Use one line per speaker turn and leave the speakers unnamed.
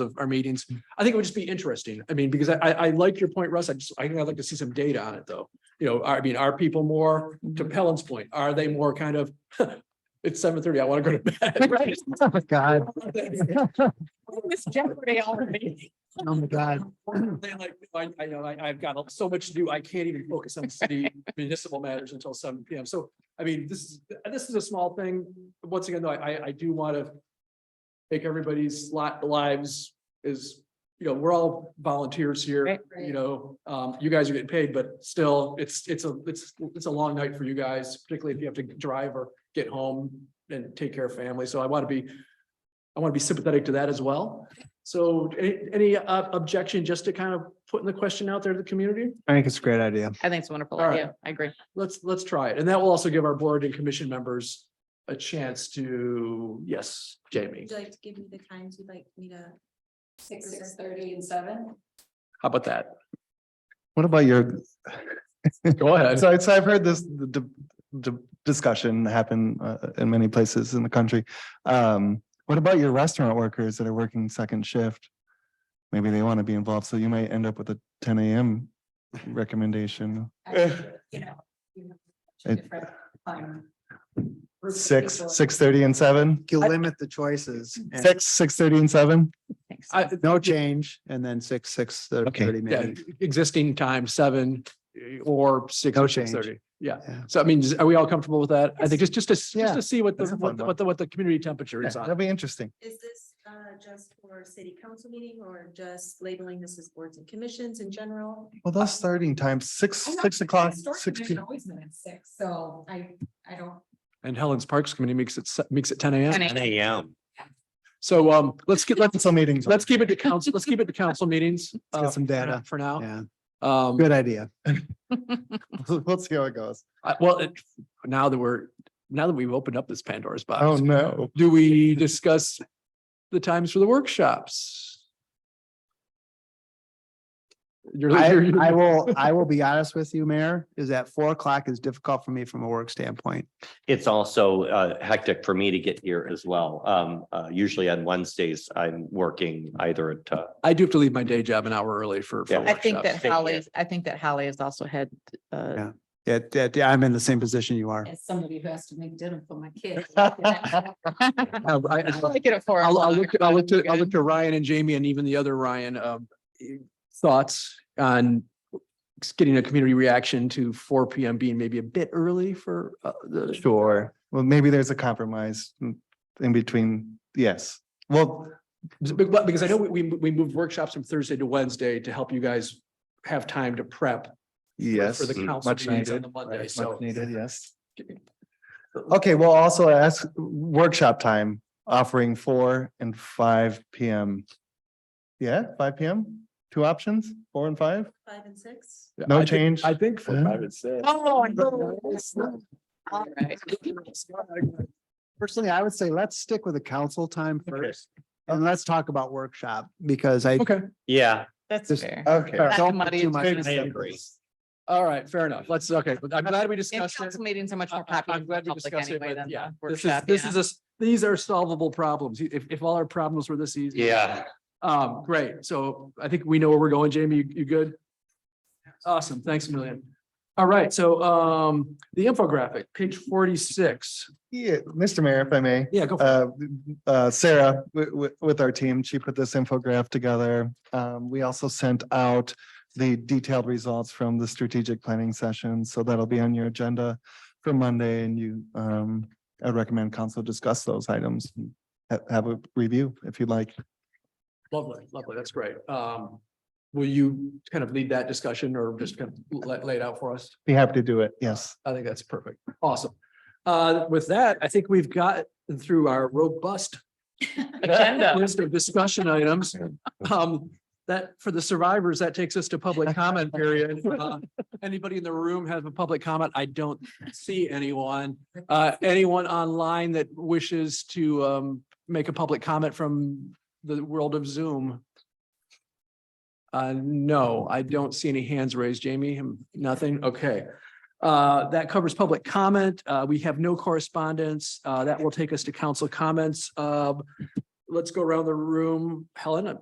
of our meetings. I think it would just be interesting. I mean, because I, I, I like your point, Russ. I just, I think I'd like to see some data on it, though. You know, I mean, are people more, to Helen's point, are they more kind of, it's seven thirty, I want to go to bed.
Right. Oh, my God.
Miss Jeopardy already.
Oh, my God.
They like, I, I know, I, I've got so much to do. I can't even focus on city municipal matters until seven P M. So, I mean, this is, this is a small thing. Once again, though, I, I- I do want to make everybody's lot, lives is, you know, we're all volunteers here,
Right.
you know, um, you guys are getting paid, but still, it's, it's a, it's, it's a long night for you guys, particularly if you have to drive or get home and take care of family. So I want to be, I want to be sympathetic to that as well. So any, any uh, objection just to kind of putting the question out there to the community?
I think it's a great idea.
I think it's a wonderful
All right.
idea. I agree.
Let's, let's try it. And that will also give our board and commission members a chance to, yes, Jamie,
Would you like to give me the times you'd like me to?
Six, six thirty and seven.
how about that?
What about your,
Go ahead.
so I, so I've heard this, the, d- d- discussion happen uh, in many places in the country. Um, what about your restaurant workers that are working second shift? Maybe they want to be involved, so you might end up with a ten AM recommendation.
You know. you have two
It-
different, um, groups of
Six,
people.
six thirty and seven,
You limit the choices. and
six, six thirty and seven?
Thanks.
I,
No change and then six, six, uh,
Okay.
thirty
yeah,
minutes.
existing time seven eh, or six.
No
or six
change.
thirty. Yeah.
Yeah.
So I mean, is- are we all comfortable with that? I think just, just to, s- just
Yeah.
to see what the,
That's a fun
what the-
one.
what the, what the community temperature is on.
That'd be interesting.
Is this uh just for city council meeting or just labeling this as boards and commissions in general?
Well, those starting times, six,
I'm not
six
sure,
o'clock,
the store
six.
commission Always been at six, so I, I don't.
And Helen's Parks Committee makes it, se- makes it ten AM.
10 a.m.
So um, let's get, let's,
Council meetings.
let's keep it to council, let's keep it to council meetings.
Let's get
uh,
some
for now-
data.
For now.
Yeah,
Um,
good idea.
We'll see how it goes.
I- well, it- now that we're, now that we've opened up this Pandora's
Oh,
box,
no.
do we discuss the times for the workshops? You're,
I,
you're-
I will, I will be honest with you, Mayor, is that four o'clock is difficult for me from a work standpoint.
It's also uh, hectic for me to get here as well. Um, uh, Usually on Wednesdays, I'm working either at, uh,
I do have to leave my day job an hour early for. for
Yeah.
I think that
workshops.
Thank you.
Holly, I think that Holly has also had, uh,
Yeah. Yeah, yeah, yeah, I'm in the same position you are.
As somebody who has to make dinner for my kids.
Um, I-
I
I'll,
like it at four
I'll, I'll
o'clock.
look, I'll look to, I'll look to Ryan and Jamie and even the other Ryan, um, thoughts on getting a community reaction to four PM being maybe a bit early for uh, the.
Sure. Well, maybe there's a compromise in- in between. Yes. Well,
Be- but- Because I know we, we we moved workshops from Thursday to Wednesday to help you guys have time to prep
yes.
for the
Mm.
council
Much
meetings on the
needed.
Monday,
Much
so.
Needed, yes. Okay, well, also ask workshop time offering four and five PM. Yeah, five PM, two options, four and five?
Five and six?
Yeah,
No
I think-
change?
I think. for
Huh?
five and six.
Oh, no. All right.
Personally, I would say let's stick with the council time
Okay.
first and let's talk about workshop because I.
Okay,
yeah,
That's
Just-
fair.
uh,
Okay.
Not
don't
to
put
muddy
too
it.
much
I
into
agree.
this.
all right, fair enough. Let's, okay, but I'm glad we
And
discussed it.
council meetings are much
I-
more
I-
popular.
I'm
with
glad
the
we
public
discussed it,
anyway
but
than
yeah,
the
this is,
workshop,
this
yeah.
is, a s- these are solvable problems. If, if all our problems were this easy.
yeah.
Um, great. So I think we know where we're going. Jamie, you, you good? Awesome. Thanks a million. All right. So, um, the infographic, page forty-six.
Yeah, Mr. Mayor, if I may.
Yeah, go. for it.
uh, uh, Sarah, with, with our team, she put this infographic together. Um, we also sent out the detailed results from the strategic planning session, so that'll be on your agenda for Monday, and you, um, I recommend council discuss those items. and ha- Have a review if you'd like.
Lovely, lovely. That's great. Um, will you kind of lead that discussion or just kind of lay, lay it out for us?
Be happy to do it, yes.
I think that's perfect. Awesome. Uh, with that, I think we've got through our robust
Agenda.
list of discussion items. Um, that for the survivors, that takes us to public comment period. Uh, Anybody in the room have a public comment? I don't see anyone. Uh, anyone online that wishes to um make a public comment from the world of Zoom? Uh, no, I don't see any hands raised. Jamie, hmm, nothing? Okay. Uh, that covers public comment. Uh, we have no correspondence. Uh, that will take us to council comments. Uh, let's go around the room. Helen,